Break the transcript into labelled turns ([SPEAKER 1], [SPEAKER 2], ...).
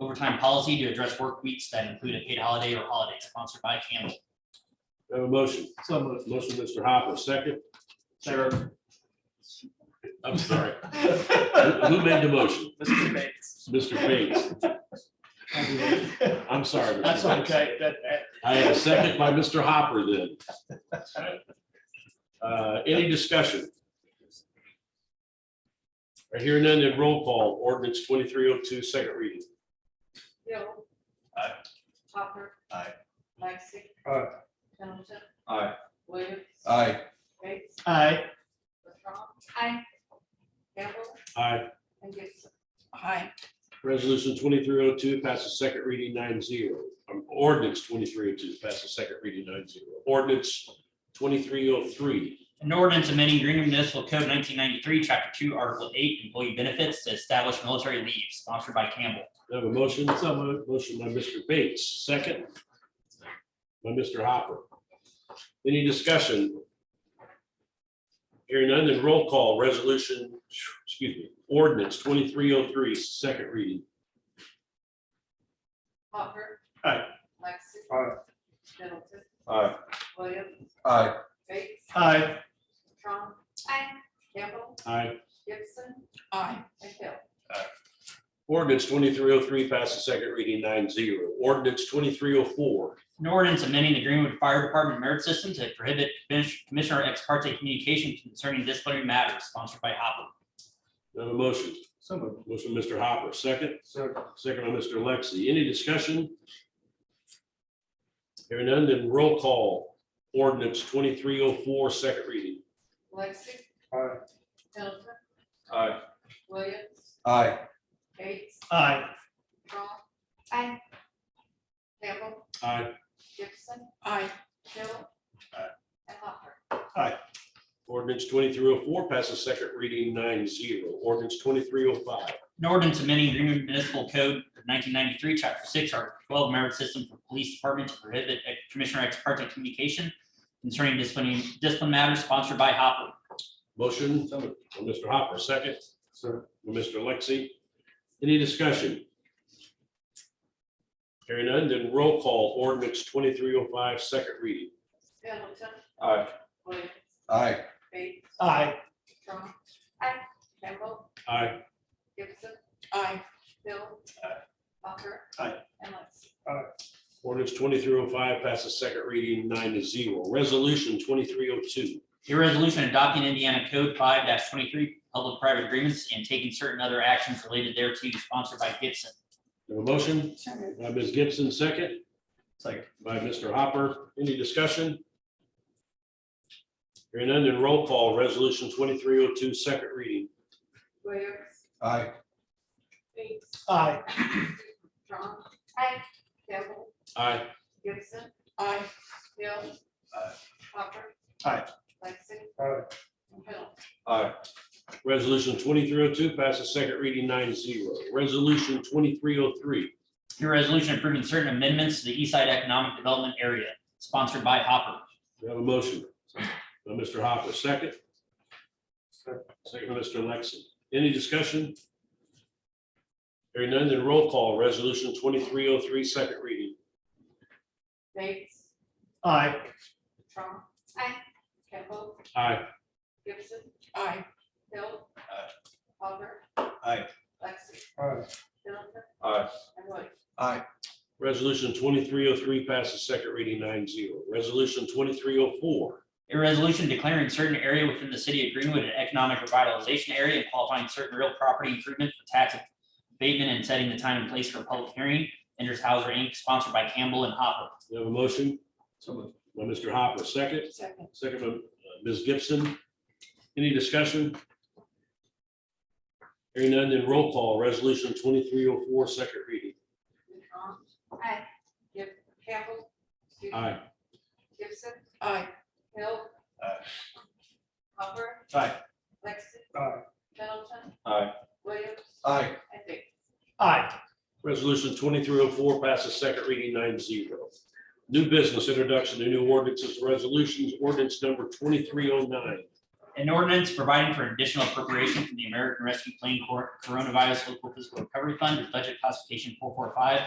[SPEAKER 1] overtime policy to address work weeks that include a paid holiday or holiday sponsored by Campbell.
[SPEAKER 2] Have a motion.
[SPEAKER 3] So moved.
[SPEAKER 2] Motion, Mr. Hopper, second.
[SPEAKER 3] Sure.
[SPEAKER 2] I'm sorry. Who who made the motion?
[SPEAKER 3] Mr. Bates.
[SPEAKER 2] Mr. Bates. I'm sorry. Mr.
[SPEAKER 3] That's
[SPEAKER 2] Bates.
[SPEAKER 3] okay. That, that,
[SPEAKER 2] I have a second by Mr. Hopper then. Uh, Any discussion? Right here none, then roll call, ordinance 2302, second reading.
[SPEAKER 4] Hill.
[SPEAKER 3] Aye.
[SPEAKER 4] Hopper.
[SPEAKER 3] Aye.
[SPEAKER 4] Lexi.
[SPEAKER 5] Aye.
[SPEAKER 4] Middleton.
[SPEAKER 5] Aye.
[SPEAKER 4] Williams.
[SPEAKER 5] Aye.
[SPEAKER 4] Bates.
[SPEAKER 3] aye.
[SPEAKER 4] Bertrand. Aye. Campbell
[SPEAKER 2] Aye.
[SPEAKER 4] and Gibson.
[SPEAKER 2] Resolution 2302 passes second reading nine zero. Um, Ordinance 2302 passes second reading nine zero. Ordinance 2303.
[SPEAKER 1] An ordinance amending Greenwood Municipal Code nineteen ninety-three, chapter two, article eight, employee benefits to establish military leave sponsored by Campbell.
[SPEAKER 2] I Have a motion? So Motion by Mr. Bates, second by Mr. Hopper. Any discussion? Hearing none, then roll call, resolution, excuse me, ordinance 2303, second reading.
[SPEAKER 4] Hopper.
[SPEAKER 2] Aye.
[SPEAKER 4] Lexi.
[SPEAKER 5] Aye.
[SPEAKER 4] Middleton.
[SPEAKER 5] Aye.
[SPEAKER 4] Williams.
[SPEAKER 5] Aye.
[SPEAKER 4] Bates.
[SPEAKER 3] Aye.
[SPEAKER 4] Bertrand. Aye. Campbell.
[SPEAKER 2] Aye.
[SPEAKER 4] Gibson. Aye. And Hill.
[SPEAKER 2] Ordinance 2303 passes second reading nine zero. Ordinance 2304.
[SPEAKER 1] An ordinance amending the Greenwood Fire Department merit system to prohibit commis- commissioner ex parte communication concerning disciplinary matters sponsored by Hopper.
[SPEAKER 2] I Have a motion?
[SPEAKER 5] So moved.
[SPEAKER 2] Motion, Mr. Hopper, second,
[SPEAKER 5] Second.
[SPEAKER 2] second by Mr. Lexi. Any discussion? Hearing none, then roll call, ordinance 2304, second reading.
[SPEAKER 4] Lexi.
[SPEAKER 5] Aye.
[SPEAKER 4] Middleton.
[SPEAKER 5] Aye.
[SPEAKER 4] Williams.
[SPEAKER 5] Aye.
[SPEAKER 4] Bates.
[SPEAKER 3] Aye.
[SPEAKER 4] Bertrand. Aye. Campbell.
[SPEAKER 2] Aye.
[SPEAKER 4] Gibson. Aye. Hill. Aye. And Hopper.
[SPEAKER 2] Ordinance twenty-three oh four passes second reading nine zero. Ordinance twenty-three oh five.
[SPEAKER 1] An ordinance amending Greenwood Municipal Code nineteen ninety-three, chapter six, article twelve, merit system for police department to prohibit ex- commissioner ex parte communication concerning disciplinary, discipline matters sponsored by Hopper.
[SPEAKER 2] Motion by Mr. Hopper, second
[SPEAKER 5] Sir.
[SPEAKER 2] by Mr. Lexi. Any discussion? Hearing none, then roll call. Ordinance twenty-three oh five, second reading.
[SPEAKER 4] Middleton.
[SPEAKER 5] Aye.
[SPEAKER 4] Williams.
[SPEAKER 5] Aye.
[SPEAKER 4] Bates.
[SPEAKER 3] Aye.
[SPEAKER 4] Trump. Aye. Campbell.
[SPEAKER 2] Aye.
[SPEAKER 4] Gibson. Aye. Hill.
[SPEAKER 2] Aye.
[SPEAKER 4] Hopper.
[SPEAKER 2] Aye.
[SPEAKER 4] And Lexi.
[SPEAKER 2] Ordinance twenty-three oh five passes second reading nine to zero. Resolution twenty-three oh two.
[SPEAKER 1] A resolution adopting Indiana Code five twenty-three, public-private agreements and taking certain other actions related thereto sponsored by Gibson.
[SPEAKER 2] Have a motion by Ms. Gibson, second
[SPEAKER 3] Second.
[SPEAKER 2] by Mr. Hopper. Any discussion? Hearing none, then roll call, resolution twenty-three oh two, second reading.
[SPEAKER 4] Williams.
[SPEAKER 5] Aye.
[SPEAKER 4] Bates.
[SPEAKER 3] Aye.
[SPEAKER 4] Trump. Aye. Campbell.
[SPEAKER 2] Aye.
[SPEAKER 4] Gibson. Aye. Hill. Aye. Hopper.
[SPEAKER 3] Aye.
[SPEAKER 4] Lexi.
[SPEAKER 5] Aye.
[SPEAKER 4] And Hill.
[SPEAKER 5] Aye.
[SPEAKER 2] Resolution twenty-three oh two passes second reading nine zero. Resolution twenty-three oh three.
[SPEAKER 1] A resolution approving certain amendments to the East Side Economic Development Area sponsored by Hopper.
[SPEAKER 2] We have a motion. By Mr. Hopper, second.
[SPEAKER 5] Second.
[SPEAKER 2] Second by Mr. Lexi. Any discussion? Hearing none, then roll call, resolution twenty-three oh three, second reading.
[SPEAKER 4] Bates.
[SPEAKER 3] Aye.
[SPEAKER 4] Trump. Aye. Campbell.
[SPEAKER 2] Aye.
[SPEAKER 4] Gibson. Aye. Hill. Aye. Hopper.
[SPEAKER 2] Aye.
[SPEAKER 4] Lexi.
[SPEAKER 5] Aye.
[SPEAKER 4] Middleton.
[SPEAKER 5] Aye.
[SPEAKER 4] And Williams.
[SPEAKER 5] Aye.
[SPEAKER 2] Resolution twenty-three oh three passes second reading nine zero. Resolution twenty-three oh four.
[SPEAKER 1] A resolution declaring certain area within the city of Greenwood an economic revitalization area and qualifying certain real property improvement for tax abatement and setting the time and place for a public hearing. Enders Hauser Inc., sponsored by Campbell and Hopper.
[SPEAKER 2] We have a motion
[SPEAKER 5] So moved.
[SPEAKER 2] by Mr. Hopper, second,
[SPEAKER 4] Second.
[SPEAKER 2] second by uh, Ms. Gibson. Any discussion? Hearing none, then roll call. Resolution twenty-three oh four, second reading.
[SPEAKER 4] Bertrand. Aye. Gib, Campbell. excuse me,
[SPEAKER 2] Aye.
[SPEAKER 4] Gibson. Aye. Hill. Aye. Hopper.
[SPEAKER 3] Aye.
[SPEAKER 4] Lexi.
[SPEAKER 5] Aye.
[SPEAKER 4] Middleton.
[SPEAKER 5] Aye.
[SPEAKER 4] Williams.
[SPEAKER 5] Aye.
[SPEAKER 4] And Bates.
[SPEAKER 3] Aye.
[SPEAKER 2] Resolution twenty-three oh four passes second reading nine zero. New business introduction to new ordinances, resolutions, ordinance number twenty-three oh nine.
[SPEAKER 1] An ordinance providing for additional appropriation from the American Rescue Plan Cor- Coronavirus Local Fiscal Recovery Fund, budget classification four four five,